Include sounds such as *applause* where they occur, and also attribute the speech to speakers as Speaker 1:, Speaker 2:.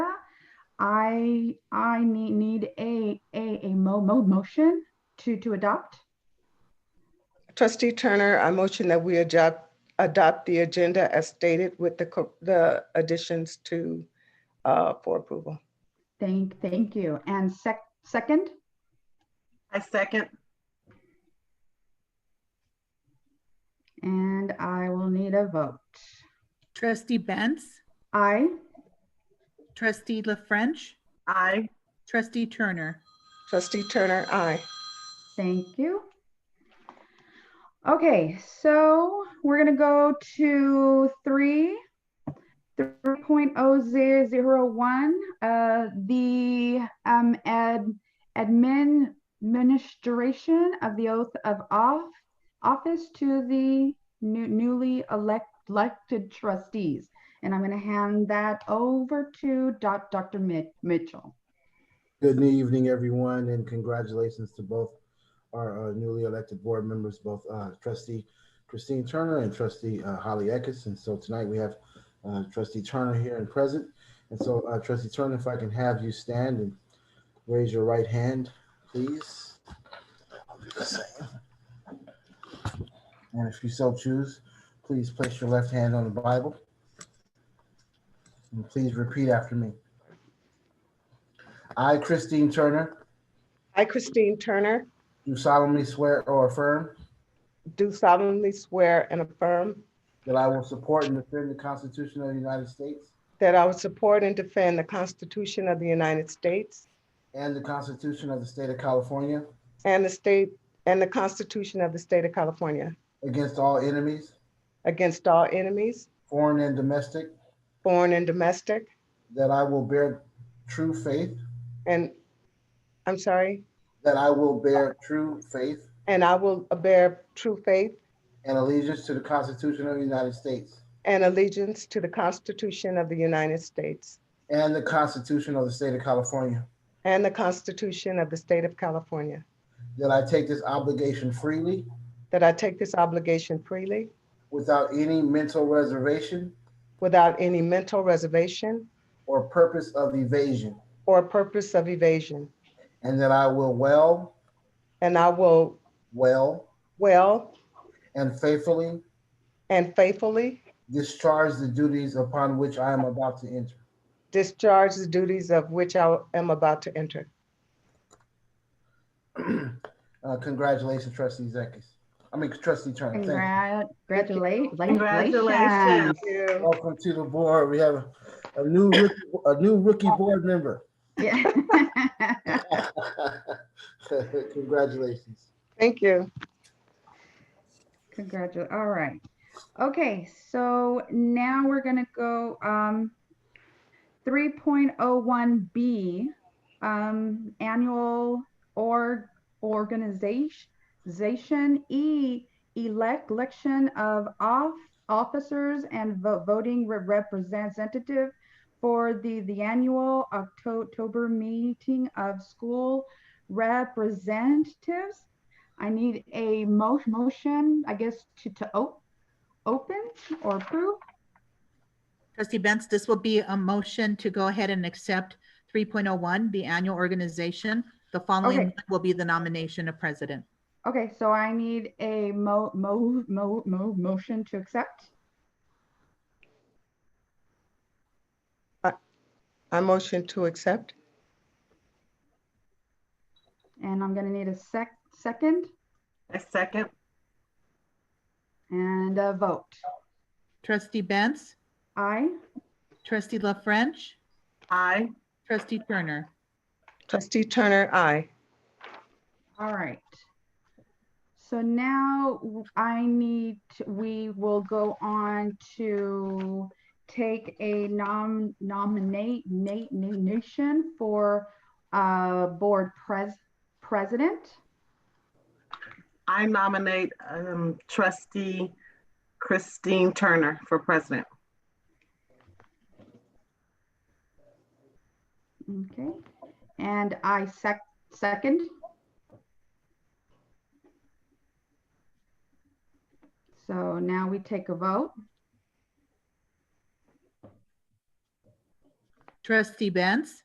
Speaker 1: I, I need, need a, a, a mo, mo, motion to, to adopt.
Speaker 2: Trustee Turner, I motion that we adopt, adopt the agenda as stated with the, co- the additions to, uh, for approval.
Speaker 1: Thank, thank you. And sec, second,
Speaker 3: I second.
Speaker 1: and I will need a vote.
Speaker 4: Trustee Benz,
Speaker 1: Aye.
Speaker 4: trustee La French,
Speaker 3: I,
Speaker 4: trustee Turner.
Speaker 2: Trustee Turner, aye.
Speaker 1: Thank you. Okay, so we're gonna go to three, three point oh zero zero one, uh, the, um, ad, admin administration of the oath of off, office to the new, newly elect, elected trustees. And I'm gonna hand that over to Doc, Dr. Mi- Mitchell.
Speaker 5: Good evening, everyone, and congratulations to both our uh, newly elected board members, both uh, trustee Christine Turner and trustee uh, Holly Eckes. And so tonight we have uh, trustee Turner here and present. And so uh, trustee Turner, if I can have you stand and raise your right hand, please. I'll do the same. And if you so choose, please place your left hand on the Bible. And please repeat after me. I, Christine Turner,
Speaker 2: I, Christine Turner,
Speaker 5: do solemnly swear or affirm
Speaker 2: do solemnly swear and affirm
Speaker 5: that I will support and defend the Constitution of the United States
Speaker 2: that I will support and defend the Constitution of the United States
Speaker 5: and the Constitution of the State of California
Speaker 2: and the state, and the Constitution of the State of California
Speaker 5: against all enemies,
Speaker 2: against all enemies,
Speaker 5: foreign and domestic,
Speaker 2: foreign and domestic,
Speaker 5: that I will bear true faith,
Speaker 2: and, I'm sorry,
Speaker 5: that I will bear true faith
Speaker 2: and I will bear true faith
Speaker 5: and allegiance to the Constitution of the United States
Speaker 2: and allegiance to the Constitution of the United States
Speaker 5: and the Constitution of the State of California,
Speaker 2: and the Constitution of the State of California,
Speaker 5: that I take this obligation freely
Speaker 2: that I take this obligation freely
Speaker 5: without any mental reservation
Speaker 2: without any mental reservation
Speaker 5: or purpose of evasion,
Speaker 2: or purpose of evasion,
Speaker 5: and that I will well,
Speaker 2: and I will
Speaker 5: well,
Speaker 2: well
Speaker 5: and faithfully
Speaker 2: and faithfully
Speaker 5: discharge the duties upon which I am about to enter.
Speaker 2: discharge the duties of which I am about to enter.
Speaker 5: *clears throat* Uh, Congratulations, trustee Zekis. I mean, trustee Turner. Thank
Speaker 1: Congrat, congratulate.
Speaker 3: Congratulations.
Speaker 2: Thank you.
Speaker 5: you. Welcome to the board. We have a new, rookie- a new rookie board member. *laughs*
Speaker 1: *laughs* Yeah.
Speaker 5: Congratulations.
Speaker 2: Thank you.
Speaker 1: Congratulations. All right. Okay, so now we're gonna go um 3.01B um annual org organization E elect election of off officers and vo- voting re- representative for the the annual Octo- October meeting of school representatives. I need a mo- motion, I guess, to, to op- open or approve.
Speaker 4: Trustee Benz, this will be a motion to go ahead and accept 3.01, the annual organization. The
Speaker 1: Okay.
Speaker 4: following one will be the nomination of president.
Speaker 1: Okay, so I need a mo, mo, mo, mo, motion to accept.
Speaker 2: I motion to accept.
Speaker 1: And I'm gonna need a sec, second
Speaker 3: I second.
Speaker 1: and a vote.
Speaker 4: Trustee Benz,
Speaker 1: Aye.
Speaker 4: trustee La French,
Speaker 3: I,
Speaker 4: trustee Turner.
Speaker 2: Trustee Turner, aye.
Speaker 1: All right. So now w- I need, to- we will go on to take a nom, nominate, Nate, nation for, uh, board pres, president.
Speaker 3: I nominate um, trustee Christine Turner for president.
Speaker 1: Okay, and I sec, second. So now we take a vote.
Speaker 4: Trustee Benz,